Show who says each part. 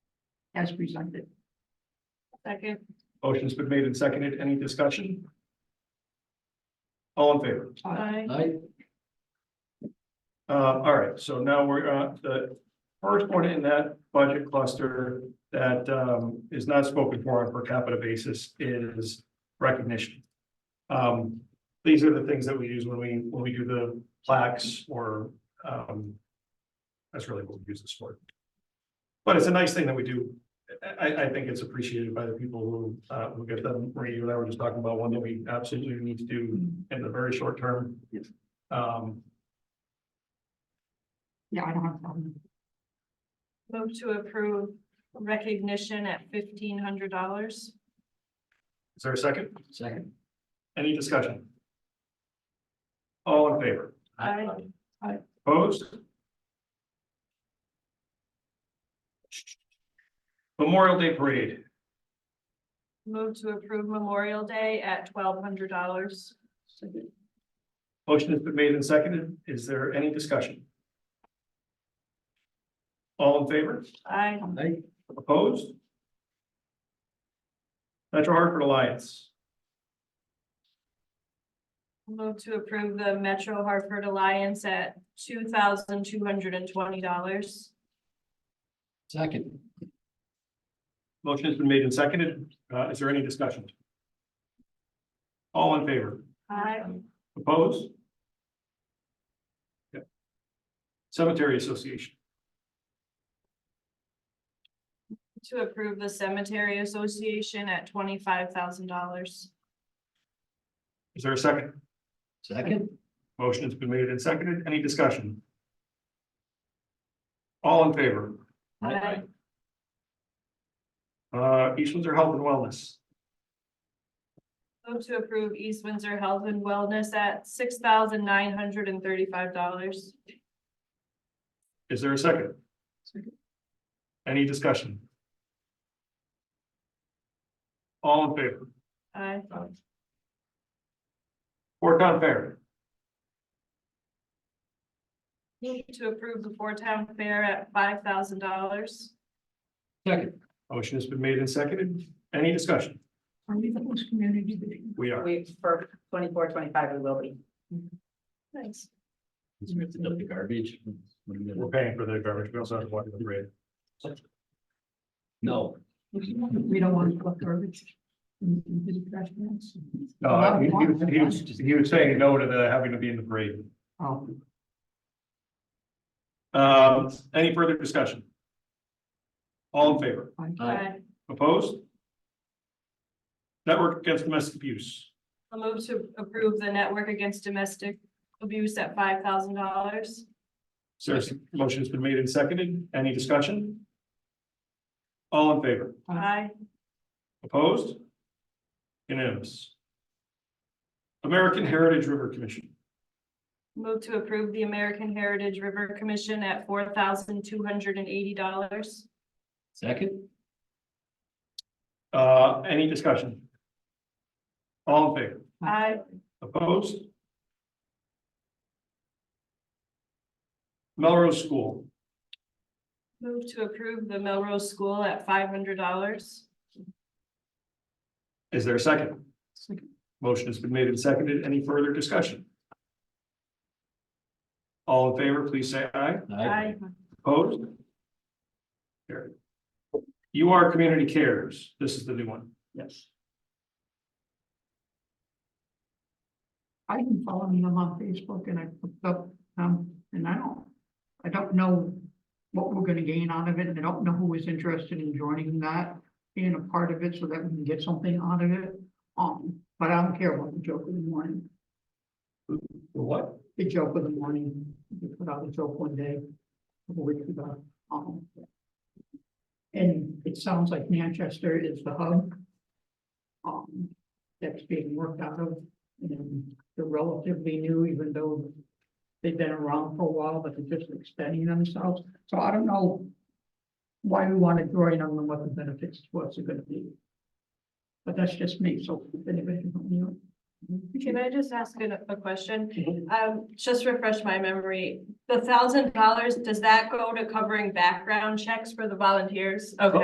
Speaker 1: as presented.
Speaker 2: Second.
Speaker 3: Motion's been made and seconded. Any discussion? All in favor?
Speaker 2: Aye.
Speaker 4: I,
Speaker 3: Uh, all right, so now we're, uh, the first one in that budget cluster that, um, is not spoken for on a per capita basis is recognition. Um, these are the things that we use when we, when we do the plaques or, um, that's really what we use this for. But it's a nice thing that we do. I, I, I think it's appreciated by the people who, uh, who get them. Marie, you and I were just talking about one that we absolutely need to
Speaker 1: Uh,
Speaker 3: do in the very short term.
Speaker 1: Yes.
Speaker 3: Um,
Speaker 1: Yeah, I don't have a problem.
Speaker 2: Move to approve recognition at fifteen hundred dollars.
Speaker 3: Is there a second?
Speaker 4: second.
Speaker 3: Any discussion? All in favor?
Speaker 2: Aye.
Speaker 3: Opposed? Memorial Day Parade,
Speaker 2: Move to approve Memorial Day at twelve hundred dollars.
Speaker 3: motion has been made and seconded. Is there any discussion? All in favor?
Speaker 2: Aye.
Speaker 1: um,
Speaker 4: I,
Speaker 3: Opposed? Metro Hartford Alliance,
Speaker 2: Move to approve the Metro Hartford Alliance at two thousand two hundred and twenty dollars.
Speaker 4: second.
Speaker 3: motion has been made and seconded. Uh, is there any discussion? All in favor?
Speaker 2: Aye.
Speaker 3: Opposed? Yep. Cemetery Association,
Speaker 2: To approve the Cemetery Association at twenty-five thousand dollars.
Speaker 3: is there a second?
Speaker 4: Second.
Speaker 3: Motion has been made and seconded, any discussion? All in favor,
Speaker 2: Aye.
Speaker 3: uh, East Windsor Health and Wellness,
Speaker 2: Move to approve East Windsor Health and Wellness at six thousand nine hundred and thirty-five dollars.
Speaker 3: is there a second?
Speaker 1: Second.
Speaker 3: Any discussion? All in favor,
Speaker 2: Aye.
Speaker 3: Fort Fair,
Speaker 2: Move to approve the Four Town Fair at five thousand dollars.
Speaker 4: Second.
Speaker 3: motion has been made and seconded, any discussion?
Speaker 1: Are we the host community? meeting?
Speaker 3: We are,
Speaker 5: We, for 24, 25, we will be.
Speaker 2: Thanks.
Speaker 4: Let's rip it up the garbage.
Speaker 3: we're paying for the garbage, we also have to watch the parade.
Speaker 4: No.
Speaker 1: We don't want to collect garbage. in- in the trash cans.
Speaker 3: No, Uh, he- he was- he was, he was saying no to the having to be in the parade.
Speaker 1: Oh,
Speaker 3: Um, any further discussion? All in favor,
Speaker 1: I-
Speaker 4: Aye.
Speaker 3: opposed? Network Against Domestic Abuse,
Speaker 2: I'll move to approve the Network Against Domestic Abuse at five thousand dollars.
Speaker 3: Sarah's motion's been made and seconded, any discussion? All in favor,
Speaker 2: Aye.
Speaker 3: opposed? Unanimous. American Heritage River Commission,
Speaker 2: Move to approve the American Heritage River Commission at four thousand two hundred and eighty dollars.
Speaker 4: Second.
Speaker 3: uh, any discussion? All in favor?
Speaker 2: Aye.
Speaker 3: Opposed? Melrose School,
Speaker 2: Move to approve the Melrose School at five hundred dollars.
Speaker 3: is there a second?
Speaker 1: Second.
Speaker 3: Motion has been made and seconded. Any further discussion? All in favor, please say aye.
Speaker 2: Aye.
Speaker 3: Opposed? Carried. You are Community Cares. This is the new one.
Speaker 1: Yes. I've been following them on Facebook and I looked up, um, and I don't, I don't know what we're gonna gain out of it, and I don't know who is interested in joining that, being a part of it, so that we can get something out of it. Um, but I don't care about the joke in the morning,
Speaker 3: What?
Speaker 1: the joke of the morning, we put out a joke one day, a couple weeks ago, um. And it sounds like Manchester is the hub. Um, that's being worked out of, and they're relatively new, even though. They've been around for a while, but they're just extending themselves, so I don't know. Why we want to join on and what the benefits to us are gonna be. But that's just me, so if anybody from you.
Speaker 2: Can I just ask a, a question?
Speaker 1: Mhm.
Speaker 2: Um, just refresh my memory. The thousand dollars, does that go to covering background checks for the volunteers? Okay.